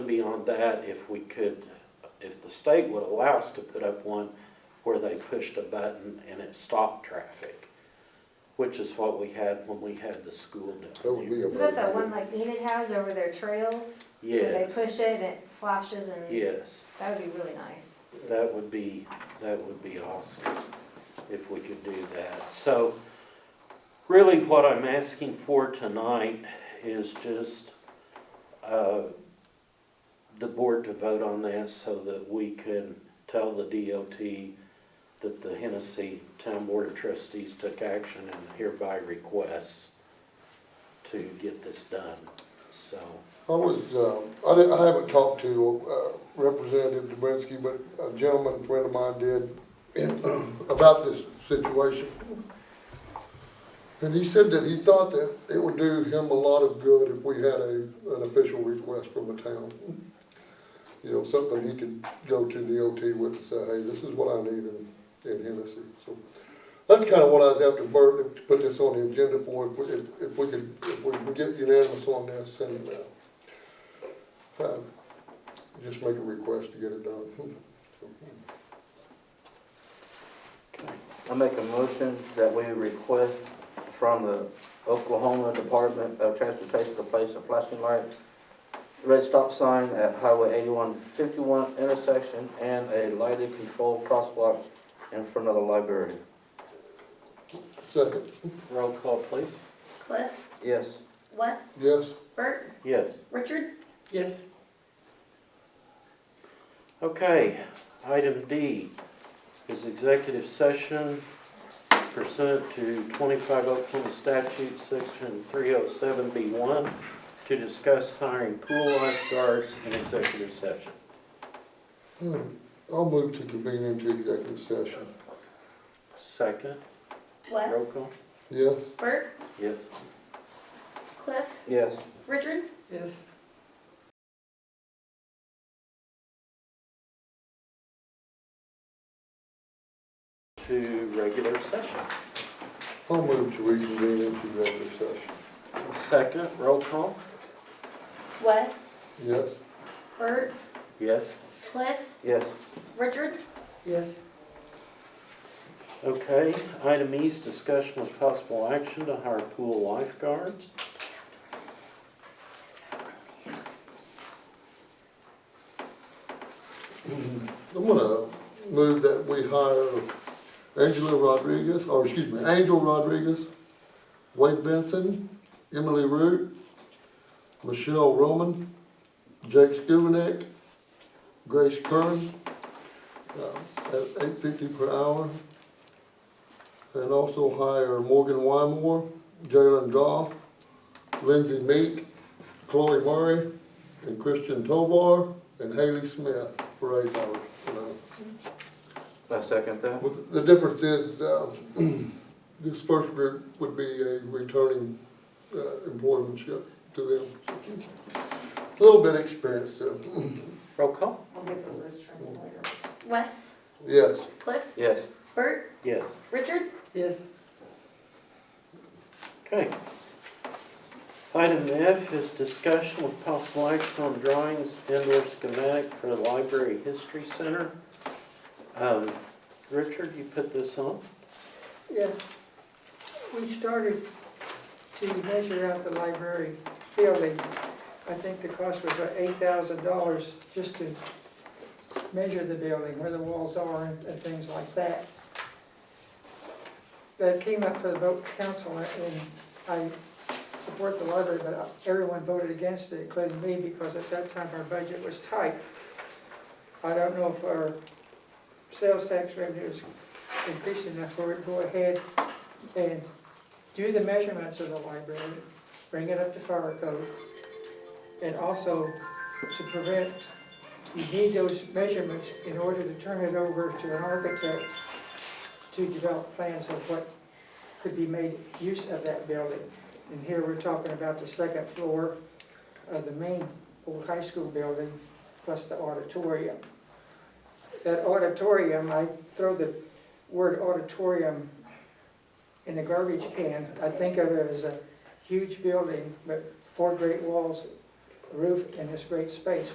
beyond that if we could, if the state would allow us to put up one where they pushed a button and it stopped traffic, which is what we had when we had the school That down would be there. a. What about that one like Enid has over their trails? Where they Yes. push it and it flashes and, Yes, that would be really nice. that would be, that would be awesome if we could do that. So really what I'm asking for tonight is just uh, the board to vote on this so that we can tell the DOT that the Hennessy Town Board of Trustees took action and hereby requests to get this done, so. I was, um, I didn't, I haven't talked to, uh, Representative Dubinsky, but a gentleman friend of mine did in, about this situation. And he said that he thought that it would do him a lot of good if we had a, an official request from the town. You know, something he could go to the OT with and say, hey, this is what I need in, in Hennessy, so. That's kind of what I'd have to, Bert, to put this on the agenda for, if, we- if, if we could, if we can get unanimous on this and, uh, uh, Just make a request to get it done. I make a motion that we request from the Oklahoma Department of Transportation to place a flashing light, red stop sign at Highway eighty-one fifty-one intersection, and a lighted controlled crosswalk in front of the library. Second, Roll call, please. Cliff, Yes. Wes, yes, Bert, Yes. Richard, Yes. Okay, item D is executive session pursuant to twenty-five Oklahoma statute, section three oh seven B one, to discuss hiring pool lifeguards in executive session. Hmm. I'll move to convene into executive session. Second, roll Wes, call? Yes, Bert, Yes. Cliff, Yes. Richard, Yes. To regular session. I'll move to reconvene into executive session. Second, roll call? Wes, Yes, Bert, Yes. Cliff, Yes. Richard, Yes. Okay, item E is discussion with possible action to hire pool lifeguards. Mm, I'm gonna move that we hire Angela Rodriguez, or excuse me, Angel Rodriguez, Wade Benson, Emily Root, Michelle Roman, Jake Skubanek, Grace Kern, uh, at eight fifty per hour. And also hire Morgan Wymore, Jalen Goff, Lindsay Meek, Chloe Murray, and Christian Tovar, and Haley Smith for eight hours. per hour. I second that. Well, The difference is, uh, this first group would be a returning uh, employmentship to them. A Little bit experienced, so, Roll call? I'll get the list from you later. Wes, yes. Cliff, Yes. Bert, Yes. Richard, Yes. Okay. Item F is discussion with possible action on drawings and/or schematic for the Library History Center. Um, Richard, you put this on? Yeah. We started to measure out the library building. I think the cost was eight thousand dollars just to measure the building, where the walls are and, and things like that. That came up for the vote council and I support the library, but everyone voted against it, including me, because at that time our budget was tight. I don't know if our sales tax revenue is increasing enough for it to go ahead and do the measurements of the library, bring it up to fire code. And also to prevent, you need those measurements in order to turn it over to an architect to develop plans of what could be made use of that building. And here we're talking about the second floor of the main old high school building, plus the auditorium. That auditorium, I throw the word auditorium in the garbage can, I think of it as a huge building, but four great walls, a roof, and this great space.